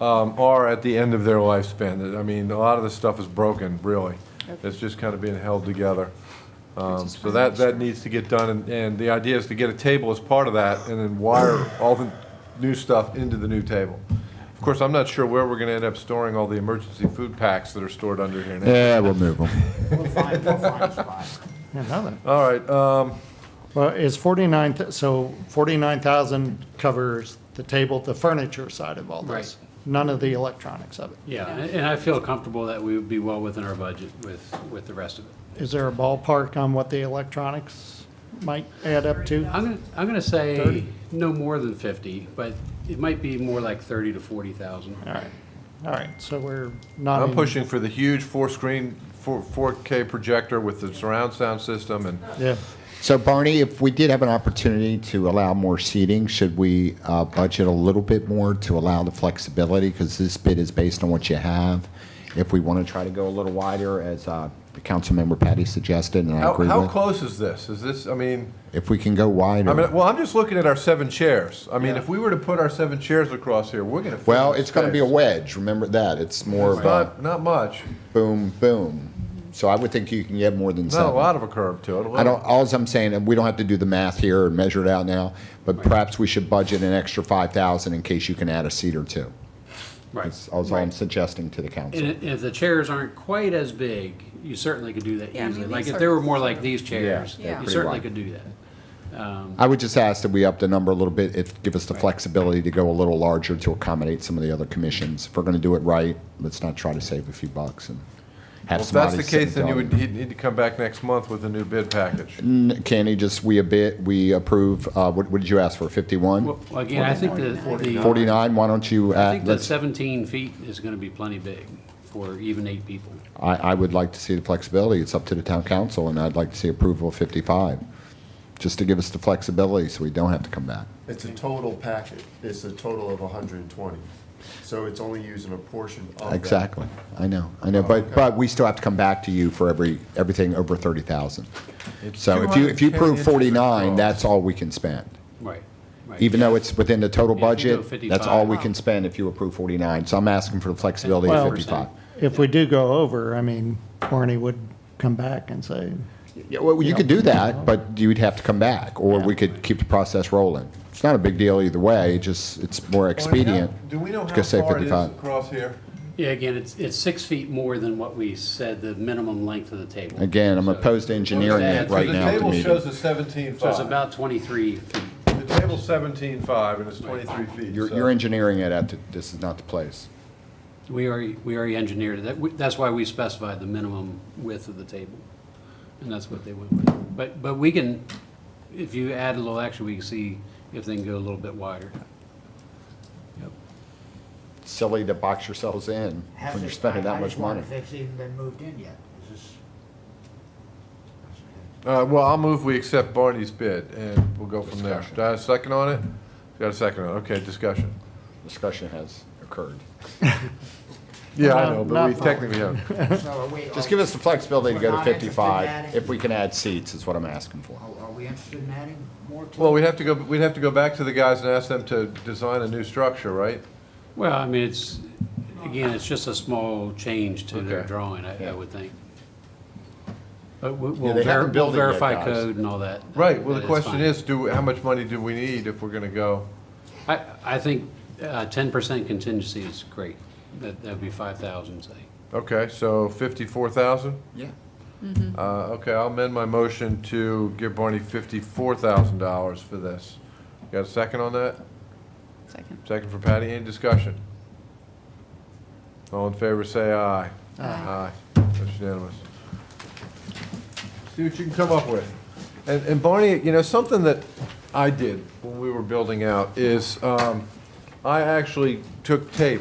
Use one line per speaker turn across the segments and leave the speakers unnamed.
um, are at the end of their lifespan. I mean, a lot of this stuff is broken, really. It's just kind of being held together. Um,
just
So
wanna
that,
make
that needs to get done, and, and the idea is to get a table as part of that, and then wire all the new stuff into the new table. Of course, I'm not sure where we're gonna end up storing all the emergency food packs that are stored under here now.
Yeah, we'll move them.
We'll find, we'll find a spot.
Yeah, now then.
All right, um,
Well, it's forty-nine, th- so forty-nine thousand covers the table, the furniture side of all this. None of the electronics of it.
Yeah, and and I feel comfortable that we would be well within our budget with, with the rest of it.
Is there a ballpark on what the electronics might add up to?
I'm gonna, I'm gonna say
30?
no more than fifty, but it might be more like thirty to forty thousand.
All right, all right, so we're not.
I'm
in-
pushing for the huge four-screen, four, 4K projector with the surround sound system, and
Yeah,
So Barney, if we did have an opportunity to allow more seating, should we uh, budget a little bit more to allow the flexibility? Because this bid is based on what you have. If we want to try to go a little wider, as uh, Councilmember Patty suggested, and I
how,
agree
how
with,
close is this? Is this, I mean,
if we can go
I
wider.
mean, well, I'm just looking at our seven chairs. I mean, if we were to put our seven chairs across here, we're gonna. fill
Well,
this
it's going to be a
space.
wedge, remember that. It's more of a
Not, not much.
boom, boom. So I would think you can get more than
Not a
seven.
lot of a curve to it. a
I don't,
little.
alls I'm saying, and we don't have to do the math here and measure it out now, but perhaps we should budget an extra 5,000 in case you can add a seat or two.
Right.
That's all I'm suggesting to the
And
council.
i- if the chairs aren't quite as big, you certainly could do that
Yeah, I mean,
easily. Like
these
if
are-
they were more like these chairs,
they're
you
pretty
certainly
wide.
could do that. Um,
I would just ask that we up the number a little bit, it, give us the flexibility to go a little larger to accommodate some of the other commissions. If we're going to do it right, let's not try to save a few bucks and
Well,
have
If that's
somebody
the
sit
case, then you
down. Mm.
would, he'd need to come back next month with a new bid package.
N- Can he just, we a bit, we approve, uh, what, what did you ask for, 51?
Well, again, I think the,
uh,
the,
49, why don't you,
I
add?
think the
let's,
seventeen feet is gonna be plenty big for even eight people.
I, I would like to see the flexibility. It's up to the town council, and I'd like to see approval of 55, just to give us the flexibility so we don't have to come back.
It's a total packet, it's a total of hundred and twenty, so it's only using a portion of that.
Exactly. I know, I know, but, but we still have to come back to you for every, everything over 30,000. So if you, if you
210
prove
inches
49,
across.
that's all we can spend.
Right, right.
Even though it's within the total
If you go
budget, that's all
55.
we can spend if you approve 49. So I'm asking for the flexibility
Well-
of 55.
if we do go over, I mean, Barney would come back and say,
Yeah, well, you could do that, but you'd have to come back, or we could keep the process rolling. It's not a big deal either way, just, it's more expedient.
Do we know
to
how
say
far it is
55.
across here?
Yeah, again, it's, it's six feet more than what we said, the minimum length of the table.
Again, I'm opposed to engineering
Yeah,
it
so
right
the
now at the
table
meeting.
shows a seventeen
So it's
five.
about twenty-three feet.
The table's seventeen five, and it's twenty-three feet.
You're,
so-
you're engineering it at, the- this is not the place.
We already, we already engineered it. That, we- that's why we specified the minimum width of the table. And that's what they went with. But, but we can, if you add a little extra, we can see if they can go a little bit wider. Yep.
Silly to box yourselves in when
Hasn't-
you're spending
I-
that
I
much
just wonder
money.
If it's even been moved in yet, is this?
Uh, well, I'll move we accept Barney's bid, and we'll go from there. Do I have a second on it? Got a second on it, okay, discussion.
Discussion has occurred.
Oh.
Yeah, I
Um,
know, but
not
we
far.
technically haven't.
So are we?
Just give us the flexibility to go
We're
to
not interested in adding-
55, if we can add seats, is what I'm asking for.
Are are we interested in adding more to?
Well,
it?
we'd have to go, we'd have to go back to the guys and ask them to design a new structure, right?
Well, I mean, it's, again, it's just a small change to their
Okay.
drawing, I, I
Yeah.
would think. But we- we'll
they haven't
ver- we'll
built it yet,
verify
guys.
code and all that.
Right, well,
That
the
it's
question
fine.
is, do, how much money do we need if we're gonna go?
I, I think uh, ten percent contingency is great. That, that'd be five thousand, say.
Okay, so fifty-four thousand?
Yeah.
Mm-hmm.
Uh, okay, I'll amend my motion to give Barney fifty-four thousand dollars for this. Got a second on that?
Second.
Second for Patty, any discussion? All in favor, say aye.
Aye.
that's unanimous. See what you can come up with. And, and Barney, you know, something that I did when we were building out is, um, I actually took tape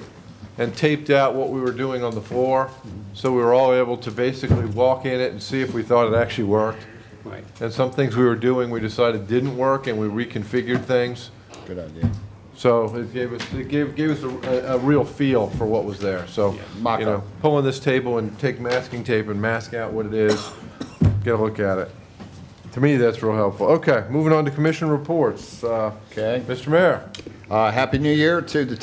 and taped out what we were doing on the floor, so we were all able to basically walk in it and see if we thought it actually worked.
Right.
And some things we were doing, we decided didn't work, and we reconfigured things.
Good idea.
So it gave us, it gave, gave us a, a real feel for what was there, so,
mock
you know,
up.
pulling this table and take masking tape and mask out what it is, get a look at it. To me, that's real helpful. Okay, moving on to commission reports. Uh,
Okay.
Mr. Mayor?
Uh, Happy New Year to the